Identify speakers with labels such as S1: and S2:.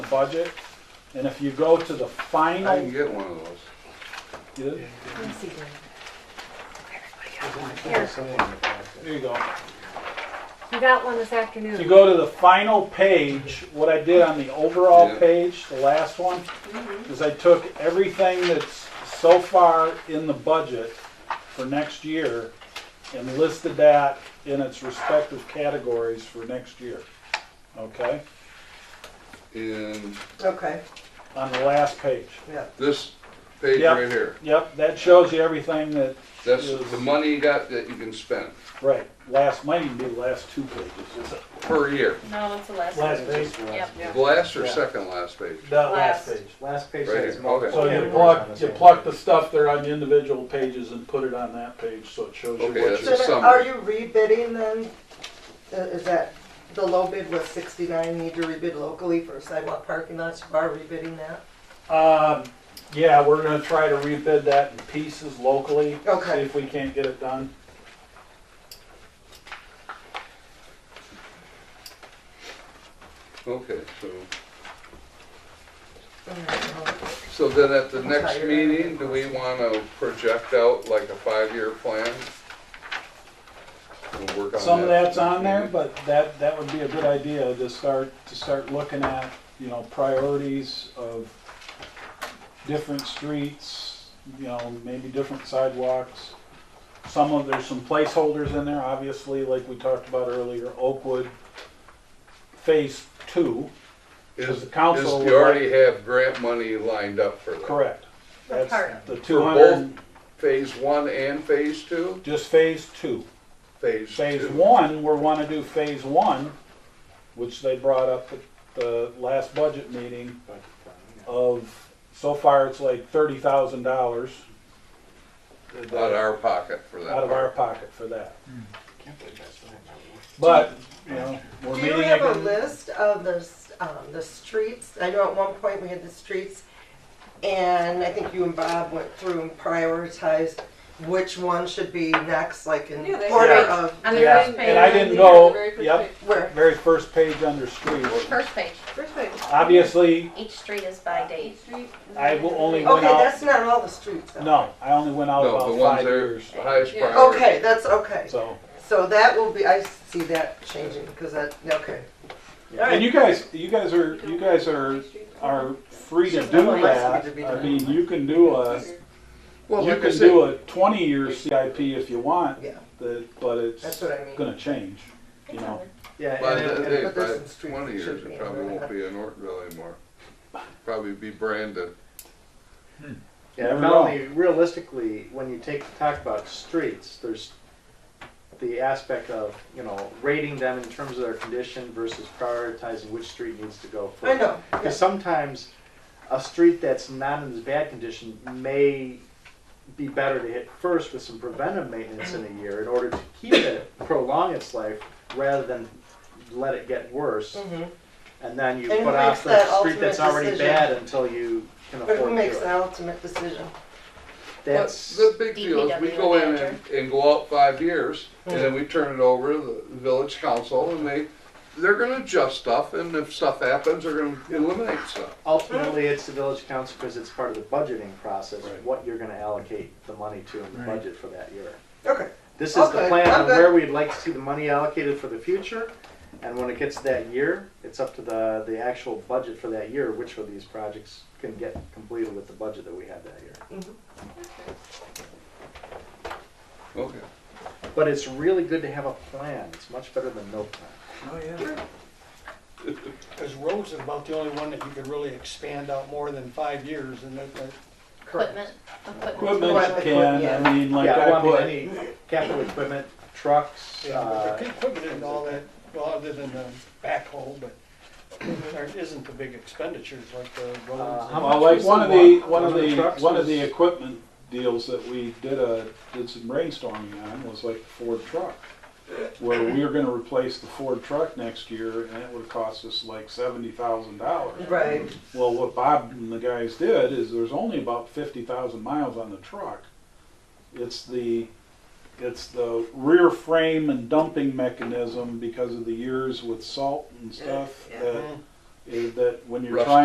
S1: budget. And if you go to the
S2: I can
S1: final,
S2: get one of those.
S1: you-
S3: Here,
S1: there you go.
S3: you got one this
S1: If you
S3: afternoon.
S1: go to the final page, what I did on the overall
S2: Yeah.
S1: page, the last one, is I took everything that's so far in the budget for next year and listed that in its respective categories for next year. Okay?
S2: And
S4: Okay,
S1: On the last page.
S4: yeah.
S2: this page
S1: Yeah.
S2: right here,
S1: Yep, that shows you everything that,
S2: that's
S1: Yes.
S2: the money you got that you can spend
S1: right, last, might even be the last two pages.
S2: per year.
S5: No, that's the last.
S6: Last
S5: one.
S6: page.
S5: Yep.
S2: The Last or
S6: Yeah.
S2: second last page?
S6: The last
S5: Last.
S6: page, last page
S2: Right
S6: says.
S2: here, okay.
S1: So you pluck, you pluck the stuff there on the individual pages and put it on that page, so it shows you
S2: Okay,
S1: what
S2: that's-
S1: you're.
S4: So
S2: a
S4: then, are
S2: summary.
S4: you rebidding then? I- Is that, the low bid was sixty-nine, need to rebid locally for sidewalk parking lots, you are rebidding that?
S1: Um, yeah, we're gonna try to rebid that in pieces locally. See
S4: Okay.
S1: if we can't get it done.
S2: Okay, so,
S4: Mm,
S2: so then at the
S4: I'm
S2: next
S4: tired.
S2: meeting, do we want to project out like a five-year plan? We'll work on
S1: Some of
S2: that.
S1: that's on there, but that, that would be a good idea to start, to start looking at, you know, priorities of different streets, you know, maybe different sidewalks. Some of, there's some placeholders in there, obviously, like we talked about earlier, Oakwood Phase Two,
S2: Is,
S1: the
S2: is
S1: council
S2: you
S1: would
S2: already have grant money lined up for that?
S1: correct.
S5: For part.
S1: That's the
S2: For
S1: two
S2: both
S1: hundred,
S2: phase one and phase two?
S1: just Phase Two.
S2: Phase two.
S1: Phase one, we're wanna do phase one, which they brought up at the last budget meeting of, so far it's like thirty thousand dollars.
S2: Out of our pocket for that.
S1: Out of
S2: part.
S1: our pocket for that. But, you know, we're
S4: Do
S1: meeting
S4: you have a
S1: again.
S4: list of the, s- um, the streets? I know at one point we had the streets, and I think you and Bob went through and prioritized which one should be next, like in
S5: Yeah, they-
S4: order
S1: Yeah.
S4: of
S5: On the
S1: Yeah,
S5: first page.
S1: and I didn't
S5: Yeah,
S1: go-
S5: the very first
S1: yep.
S5: page.
S4: where.
S1: Very first page under streets.
S5: First page.
S4: First page.
S1: Obviously,
S5: Each street is by date.
S1: I will only
S4: Okay,
S1: went out,
S4: that's not all the streets. though.
S1: no, I only went out
S2: No, the
S1: about
S2: ones
S1: five
S2: that are
S1: years.
S2: the highest
S5: Yeah.
S2: priority.
S4: Okay, that's okay.
S1: So,
S4: So that will be, I see that changing, because that, okay.
S1: and you guys, you guys are, you guys are, are free to do that. I mean, you can do a,
S2: Well,
S1: You
S2: like I
S1: can
S2: said,
S1: do a twenty-year CIP if you want,
S4: Yeah.
S1: the- but
S4: That's
S1: it's
S4: what I mean.
S1: gonna change, you know.
S6: Yeah,
S2: By
S6: and
S2: the,
S6: it-
S2: uh, hey,
S4: But there's some
S2: by
S4: streets
S2: twenty
S4: that
S2: years,
S4: should be
S2: it
S4: in
S2: probably
S4: there.
S2: won't be in Ortonville anymore. Probably be Brandon.
S6: yeah,
S1: Never
S6: Melanie, realistically, when you take, talk about streets, there's the aspect of, you know, rating them in terms of their condition versus prioritizing which street needs to go
S4: I
S6: first.
S4: know,
S6: Because sometimes a street that's not in as bad condition may be better to hit first with some preventive maintenance in a year in order to keep it, prolong its life, rather than let it get worse.
S4: Mhm.
S6: And then you
S4: And
S6: put
S4: who
S6: off
S4: makes
S6: the
S4: that
S6: street that's
S4: ultimate
S6: already
S4: decision?
S6: bad until you can
S4: but
S6: afford
S4: who
S6: to
S4: makes
S6: do
S4: the
S6: it.
S4: ultimate decision?
S2: But
S6: That's,
S2: the big deal is we go in and, and go out five years and
S1: Hmm.
S2: then we turn it over to the village council and they, they're gonna adjust stuff and if stuff happens, they're gonna eliminate stuff.
S6: ultimately, it's the village council because it's part of the budgeting process,
S1: Right.
S6: what you're gonna allocate the money to in the budget for that year.
S4: Okay,
S6: This is the
S4: Okay,
S6: plan on
S4: okay.
S6: where we'd like to see the money allocated for the future, and when it gets to that year, it's up to the, the actual budget for that year, which of these projects can get completed with the budget that we have that year.
S2: Okay.
S6: But it's really good to have a plan, it's much better than no plan.
S7: Oh, yeah. Because roads is about the only one that you could really expand out more than five years, and that, that-
S4: correct.
S5: Equipment. Equipment.
S1: Equipment can, I
S4: yeah.
S1: mean, like
S6: Yeah, well,
S1: I
S6: I mean,
S1: put,
S6: any capital equipment, trucks,
S7: yeah, but
S6: uh,
S7: the equipment and all that, well, other than the backhoe, but there isn't the big expenditures like the roads.
S6: Uh, how
S7: and-
S1: well,
S6: much
S1: like
S6: was
S1: one
S6: the
S1: of the,
S6: one-
S1: one of
S6: one of the
S1: the,
S6: trucks
S1: one of the
S6: was-
S1: equipment deals that we did a, did some brainstorming on was like Ford truck. Where we were gonna replace the Ford truck next year and it would cost us like seventy thousand dollars.
S4: Right,
S1: Well, what Bob and the guys did is there's only about fifty thousand miles on the truck. It's the, it's the rear frame and dumping mechanism because of the years with salt and stuff
S4: Yeah.
S6: Mm-hmm.
S1: that, is that when you're
S2: Rust.
S1: trying